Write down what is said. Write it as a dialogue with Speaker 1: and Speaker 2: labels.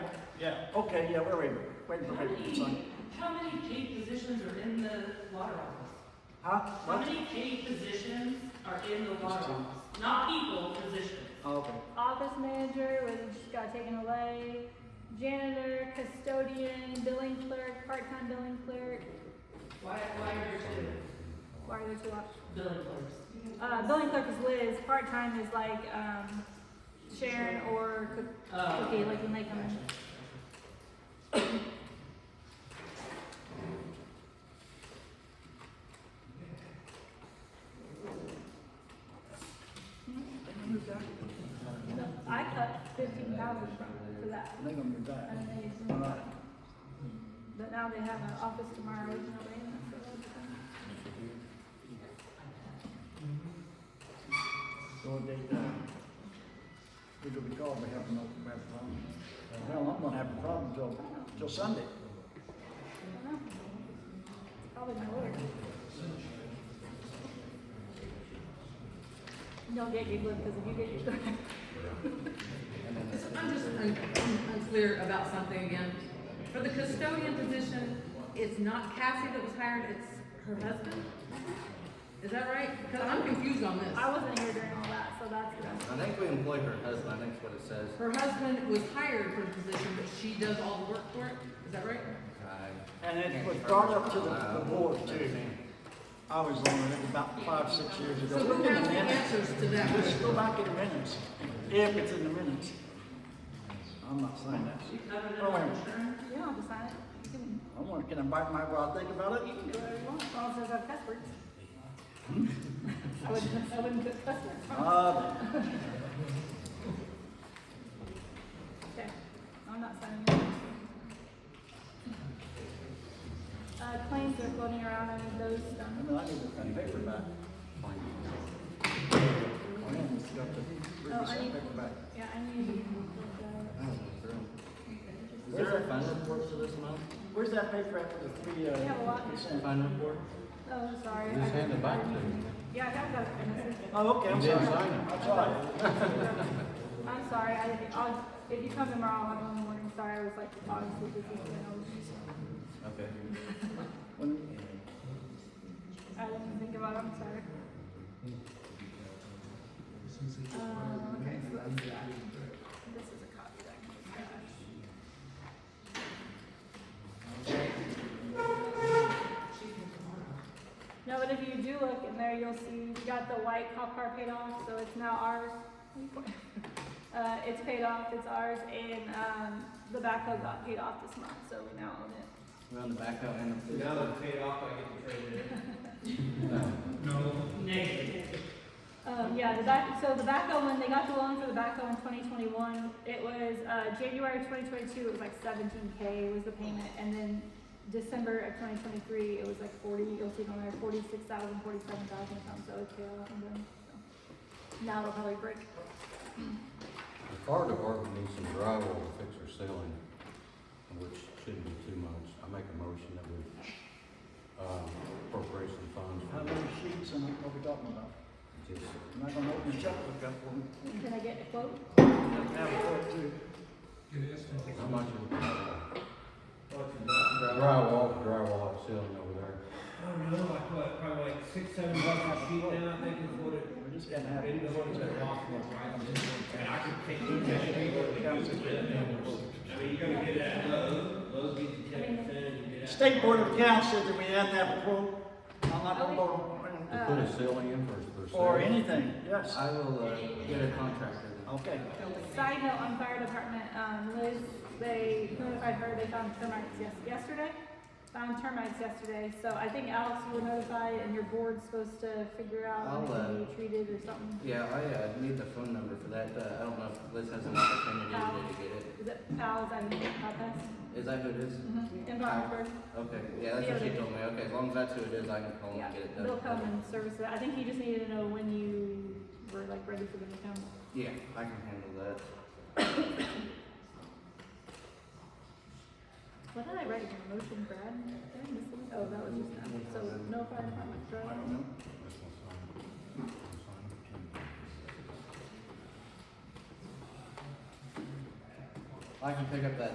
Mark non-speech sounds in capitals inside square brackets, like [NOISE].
Speaker 1: Yeah,
Speaker 2: Okay, yeah, we're waiting, waiting for papers to sign.
Speaker 3: How many paid positions are in the water office?
Speaker 2: Huh?
Speaker 3: How
Speaker 2: What?
Speaker 3: many paid positions are in the water
Speaker 2: Just two.
Speaker 3: office? Not people, positions.
Speaker 2: Oh, okay.
Speaker 4: office manager was just got taken away, janitor, custodian, billing clerk, part-time billing clerk,
Speaker 3: Why, why are there
Speaker 4: why are there two options?
Speaker 3: two billing clerks?
Speaker 4: Uh, billing clerk is Liz, part-time is like, um, Sharon or Cook-
Speaker 3: Uh,
Speaker 4: Cookie, like when they come in. So I cut fifteen thousand from, for that,
Speaker 2: They're gonna be
Speaker 4: I
Speaker 2: back.
Speaker 4: don't know, it's not- but now they have an office tomorrow, there's no way in it, so that's fine.
Speaker 2: So they, uh, we're gonna be called, we have no, we have a problem. Uh, Well, I'm gonna have a problem till, till Sunday.
Speaker 4: I don't know. Probably my lawyer. Don't get giggling, because if you get giggling,
Speaker 5: Just- I'm just un- un- unclear about something again. For the custodian position, it's not Cassie that was hired, it's her husband? Is that right? Because I'm confused on this.
Speaker 4: I wasn't here during all that, so that's what I'm.
Speaker 6: I think we employ her husband, I think that's what it says.
Speaker 5: Her husband was hired for the position, but she does all the work for it, is that right?
Speaker 6: I-
Speaker 2: And it was Uh, brought up to the, the board too. I was on it about five, six years ago.
Speaker 5: So
Speaker 2: Look
Speaker 5: who
Speaker 2: in the
Speaker 5: has the
Speaker 2: minutes.
Speaker 5: answers to that?
Speaker 2: Let's go back in the minutes, if it's in the minutes. I'm not saying that.
Speaker 3: You covered it
Speaker 2: Oh,
Speaker 3: on
Speaker 2: wait.
Speaker 3: insurance?
Speaker 4: You don't have to sign it. You can,
Speaker 2: I want, can I bite my, while I think about it? You can do whatever you want.
Speaker 4: as long as there's no cuss words. [LAUGHS] I wouldn't, I wouldn't put cuss words on.
Speaker 2: Uh,
Speaker 4: Okay, I'm not signing it. Uh, claims are floating around and those,
Speaker 2: I
Speaker 4: um,
Speaker 2: mean, I need to cut paper back. I need to cut the,
Speaker 4: Oh,
Speaker 2: read this
Speaker 4: I need-
Speaker 2: paper back.
Speaker 4: yeah, I need to.
Speaker 6: Is there a fund report for this month?
Speaker 2: Where's that paper at for the three, uh?
Speaker 4: We have a lot.
Speaker 2: consent?
Speaker 6: Fund report?
Speaker 4: Oh, sorry.
Speaker 6: Just
Speaker 4: I-
Speaker 6: hand it back to me.
Speaker 4: Yeah, I have that. in a second.
Speaker 2: Oh, okay, I'm
Speaker 6: You didn't
Speaker 2: sorry.
Speaker 6: sign it.
Speaker 2: I'm sorry.
Speaker 4: I'm sorry, I, I'll, if you come tomorrow, I'll go in the morning, sorry, I was like, obviously, this is, you know,
Speaker 6: Okay.
Speaker 2: When-
Speaker 4: I didn't think about it, I'm sorry. Um, okay, so that's that. This is a copy that I can just attach. No, but if you do look in there, you'll see, we got the white cop car paid off, so it's now ours. [LAUGHS] Uh, it's paid off, it's ours, and, um, the backhoe got paid off this month, so we now own it.
Speaker 6: We're on the backhoe and the.
Speaker 7: Now that I'm paid off, I get to trade it. Oh.
Speaker 3: Negative.
Speaker 4: Um, yeah, the back, so the backhoe, when they got the loan for the backhoe in twenty twenty-one, it was, uh, January twenty twenty-two, it was like seventeen K was the payment, and then December of twenty twenty-three, it was like forty, you'll see it on there, forty-six thousand, forty-seven thousand something, so it's paid off and done, so. Now it'll probably break.
Speaker 8: The fire department needs some drywall to fix their ceiling, which shouldn't be too much. I make a motion that we, um, appropriate some funds
Speaker 2: How
Speaker 8: for
Speaker 2: many sheets and what we talking about?
Speaker 8: just,
Speaker 2: I'm not gonna open the checkbook up for me.
Speaker 4: Can I get a quote?
Speaker 2: Have a quote too.
Speaker 8: how much is drywall, drywall ceiling over there?
Speaker 7: I don't know, like what, probably like six, seven bucks a sheet now, I think is what it,
Speaker 2: We're just gonna have.
Speaker 7: in the what it's costing, right? And I could take two cash people and go to I mean, you're gonna get that low, low's gonna be ten percent, you get that.
Speaker 2: State Board of Accounts says that we have to have a quote. I'm not gonna vote
Speaker 8: They put a ceiling in for, for
Speaker 2: on-
Speaker 8: ceiling.
Speaker 2: or anything, yes.
Speaker 6: I will, uh, get a contractor.
Speaker 2: Okay.
Speaker 4: Side note on fire department, um, Liz, they notified her they found termites yes, yesterday. Found termites yesterday, so I think Alex, you were notified and your board's supposed to figure out when it
Speaker 6: I'll,
Speaker 4: can
Speaker 6: uh,
Speaker 4: be treated or something.
Speaker 6: Yeah, I, uh, need the phone number for that, uh, I don't know if Liz has an opportunity to get it.
Speaker 4: Is it Al's, I think, Papas?
Speaker 6: Is that who it is?
Speaker 4: In Rockford,
Speaker 6: Okay, yeah, that's what she told me, okay, as long as that's who it is, I can call
Speaker 4: yeah,
Speaker 6: and get it done.
Speaker 4: they'll come and service it, I think he just needed to know when you were like ready for them to come.
Speaker 6: Yeah, I can handle that.
Speaker 4: What did I write in the motion, Brad? Did I miss something? Oh, that was just, now. so no fire department,
Speaker 8: I
Speaker 4: right?
Speaker 8: don't know. This one's signed. This one's signed.
Speaker 6: I can pick up that